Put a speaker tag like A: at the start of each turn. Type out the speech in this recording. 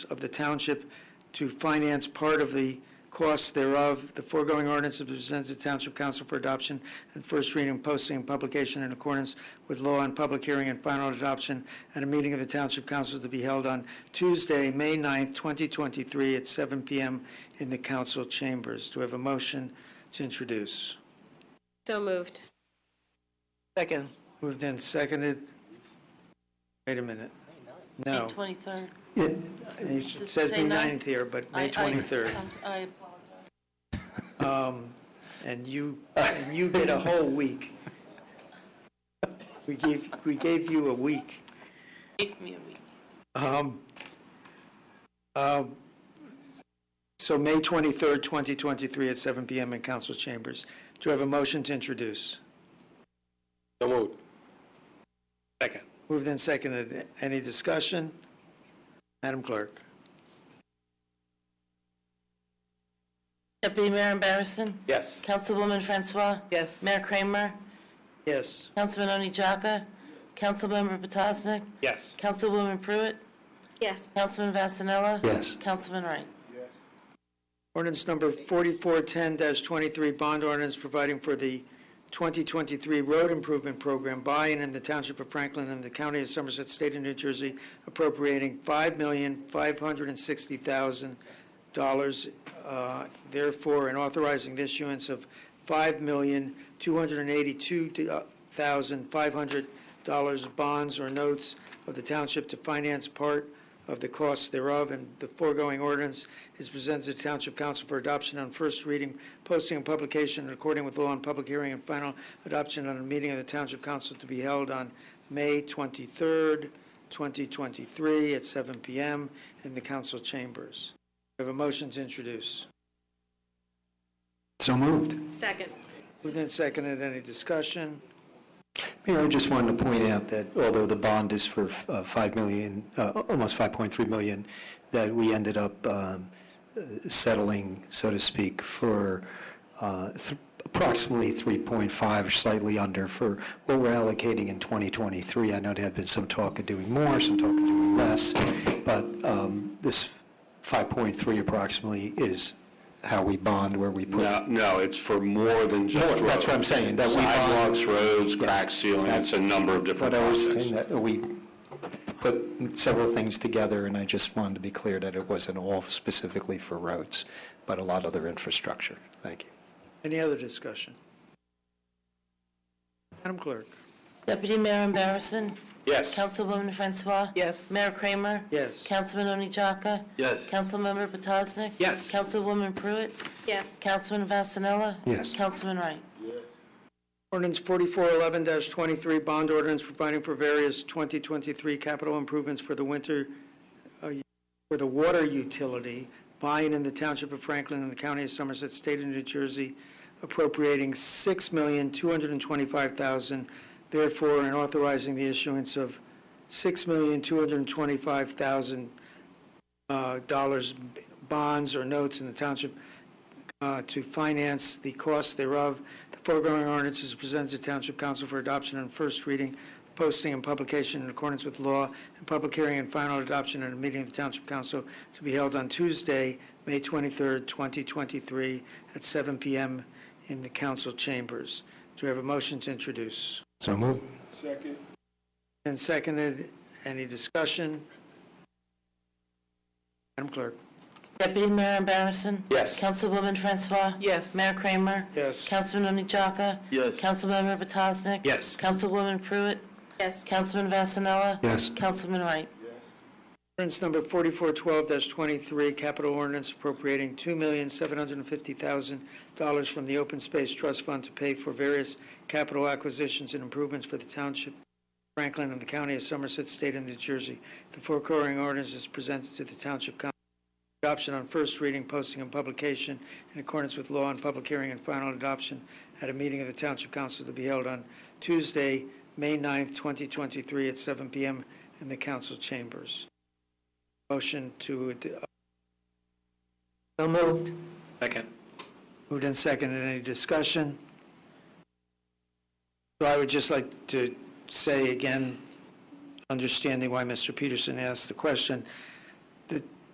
A: of the township to finance part of the costs thereof. The foregoing ordinance is presented to Township Council for adoption and first reading, posting, and publication in accordance with law and public hearing and final adoption at a meeting of the Township Council to be held on Tuesday, May 9th, 2023, at 7 PM in the council chambers. Do we have a motion to introduce?
B: So moved.
C: Second.
A: Moved and seconded. Wait a minute. No,
B: 23rd.
A: it
B: Does it
A: says
B: say
A: May
B: nine?
A: 9th here, but
B: I-
A: May
B: I-
A: 23rd.
B: I'm s- I apologize.
A: And you, and you get a whole week. We gave, we gave you a week.
B: Give me a week.
A: Um, uh, So May 23rd, 2023 at seven PM in council chambers. Do you have a motion to introduce?
D: So moved. Second.
A: Moved and seconded. Any discussion? Madam Clerk?
E: Deputy Mayor Barrison,
D: Yes.
E: Councilwoman Francois,
C: Yes.
E: Mayor Kramer,
A: Yes.
E: Councilman Oni Jaka, Councilmember Petosnik,
D: Yes.
E: Councilwoman Pruitt,
B: Yes.
E: Councilman Vasanella.
D: Yes.
E: Councilman Wright.
A: Ordinance number 4410-23, bond ordinance providing for the 2023 road improvement program by and in the Township of Franklin and the County of Somerset, State of New Jersey, appropriating $5,560,000, uh, therefore, and authorizing the issuance of $5,282,500 bonds or notes of the township to finance part of the costs thereof, and the foregoing ordinance is presented to Township Council for adoption on first reading, posting and publication in accordance with law and public hearing and final adoption on a meeting of the Township Council to be held on May 23rd, 2023, at 7 PM in the council chambers. We have a motion to introduce.
F: So moved.
B: Second.
A: Moved and seconded, any discussion?
F: Mayor, I just wanted to point out that although the bond is for uh, 5 million, uh, almost 5.3 million, that we ended up um, uh, settling, so to speak, for uh, th- approximately 3.5, or slightly under, for what we're allocating in 2023. I know there had been some talk of doing more, some talk of doing less, but um, this 5.3 approximately is how we bond, where we put.
D: No, no, it's for more than just
F: More,
D: roads.
F: that's what I'm saying, that we bond-
D: Sidewalks, roads, crack sealing, it's a number of different
F: But I was
D: projects.
F: saying that we put several things together, and I just wanted to be clear that it wasn't all specifically for roads, but a lot of other infrastructure. Thank you.
A: Any other discussion? Madam Clerk?
E: Deputy Mayor Barrison,
D: Yes.
E: Councilwoman Francois.
C: Yes.
E: Mayor Kramer.
A: Yes.
E: Councilman Oni Jaka.
D: Yes.
E: Councilmember Petosnik.
D: Yes.
E: Councilwoman Pruitt,
B: Yes.
E: Councilman Vasanella.
F: Yes.
E: Councilman Wright.
A: Ordinance 4411-23, bond ordinance providing for various 2023 capital improvements for the winter, uh, for the water utility, buying in the Township of Franklin and the County of Somerset, State of New Jersey, appropriating $6,225,000, therefore, and authorizing the issuance of $6,225,000 uh, dollars bonds or notes in the Township uh, to finance the cost thereof. The foregoing ordinance is presented to Township Council for adoption on first reading, posting and publication in accordance with law, and public hearing and final adoption at a meeting of the Township Council to be held on Tuesday, May 23rd, 2023, at 7 PM in the council chambers. Do we have a motion to introduce?
F: So moved.
A: And seconded, any discussion? Madam Clerk?
E: Deputy Mayor Barrison.
D: Yes.
E: Councilwoman Francois.
C: Yes.
E: Mayor Kramer.
A: Yes.
E: Councilman Oni Jaka. Yes. Councilmember Petosnik.
D: Yes.
E: Councilwoman Pruitt.
B: Yes.
E: Councilman Vasanella.
F: Yes.
E: Councilman Wright.
A: Ordinance number 4412-23, capital ordinance appropriating $2,750,000 from the Open Space Trust Fund to pay for various capital acquisitions and improvements for the township Franklin and the county of Somerset, state of New Jersey. The foregoing ordinance is presented to the township council for adoption on first reading, posting, and publication in accordance with law and public hearing and final adoption at a meeting of the township council to be held on Tuesday, May 9th, 2023, at 7 p.m. in the council chambers. Motion to, ad-
C: So moved.
D: Second.
A: moved and seconded, any discussion? So I would just like to say again, understanding why Mr. Peterson asked the question, the